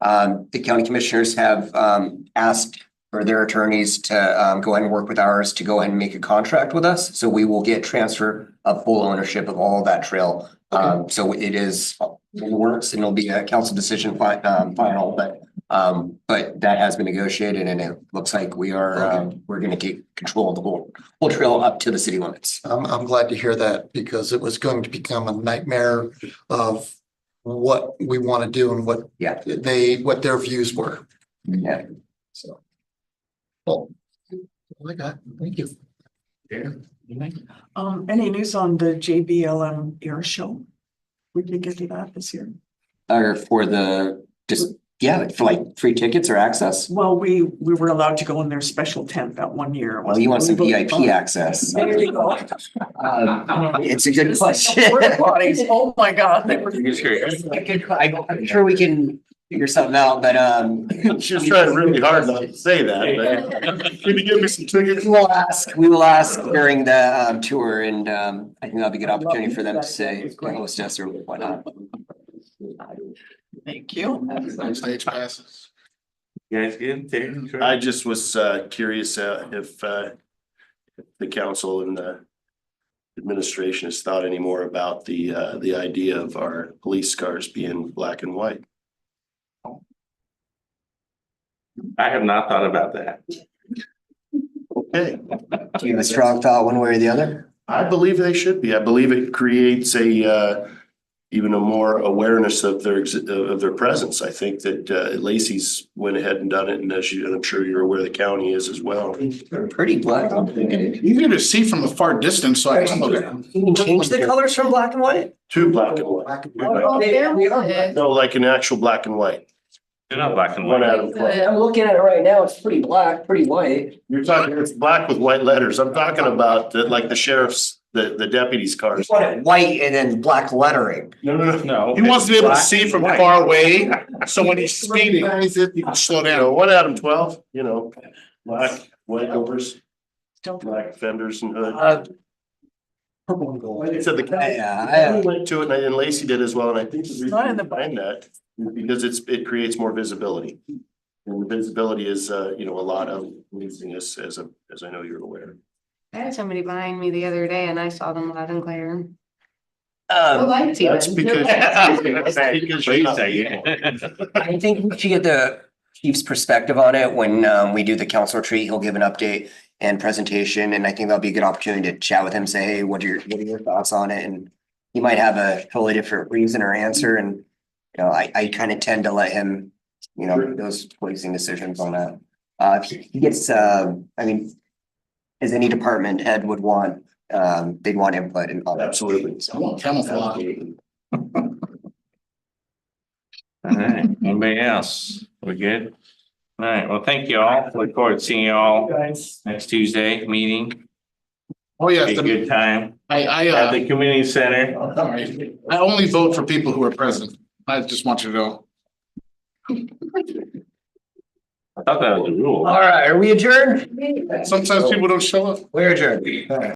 Um, the county commissioners have, um, asked for their attorneys to, um, go ahead and work with ours to go ahead and make a contract with us. So we will get transfer of full ownership of all of that trail. Um, so it is in the works and it'll be a council decision fi- um, final, but, um, but that has been negotiated and it looks like we are, um, we're gonna get control of the whole, whole trail up to the city limits. I'm, I'm glad to hear that because it was going to become a nightmare of what we want to do and what Yeah. they, what their views were. Yeah. So. Well, all I got, thank you. Um, any news on the JBLM air show? We did get to that this year. Or for the, just, yeah, for like free tickets or access. Well, we, we were allowed to go in their special tent that one year. Well, Oh, you want some VIP access. There you go. Um, It's a good question. Porta potties. Oh, my God. they were- I- I'm sure we can figure something out, but, um. She's trying really hard not to say that, but can you give me some tickets? We will ask, we will ask during the, um, tour and, um, I think that'll be a good opportunity for them to say, host us or whatnot. Thank you. Stage passes. guys good there? I just was uh curious uh if uh if the council and the administration has thought any more about the uh the idea of our police cars being black and white. I have not thought about that. Okay, Do you have a strong thought one way or the other? I believe they should be. I believe it creates a uh even a more awareness of their ex- of their presence. I think that uh Lacey's went ahead and done it, and as you, and I'm sure you're aware, the county is as well. Pretty black. You Easier to see from a far distance, so I can look at them. can change the colors from black and white? Two black and white. No, like an actual black and white. They're not black and One white. out of twelve. I'm looking at it right now. It's pretty black, pretty white. You're talking, it's black with white letters. I'm talking about the, like the sheriff's, the, the deputies' You cars. want it white and then black lettering. No, no, no. No. He wants to be able to see from far away, so when he's speeding, Recognize it. he can slow You know, down. one out of twelve, you know, black, white overs, Don't- black fenders and hood. Uh, Purple and gold. Like I said, the county, Yeah, the I- county went to it and I- and Lacey did as well, and I think the Not in reason the- behind that is because it's, it creates more visibility. And the visibility is, uh, you know, a lot of losing us as a, as I know you're aware. I had somebody behind me the other day and I saw them loud and clear. The Um, lights That's even. because. that's because you're not- I think we should get the chief's perspective on it when, um, we do the council retreat. He'll give an update and presentation, and I think that'll be a good opportunity to chat with him, say, hey, what are your, what are your thoughts on it? And he might have a totally different reason or answer, and, you know, I, I kind of tend to let him, you know, make those policing decisions on that. Uh, if he he gets, um, I mean, as any department head would want, um, they'd want input and. all that. Absolutely. I want camouflage. All right, anybody else? We good? All right, well, thank you all. Look forward to seeing you all Guys. next Tuesday meeting. Oh, Be yes, a good time I, I, at uh, the community center. all right. I only vote for people who are present. I just want you to know. I thought that was a rule. All right, are we adjourned? Sometimes people don't show up. We're adjourned.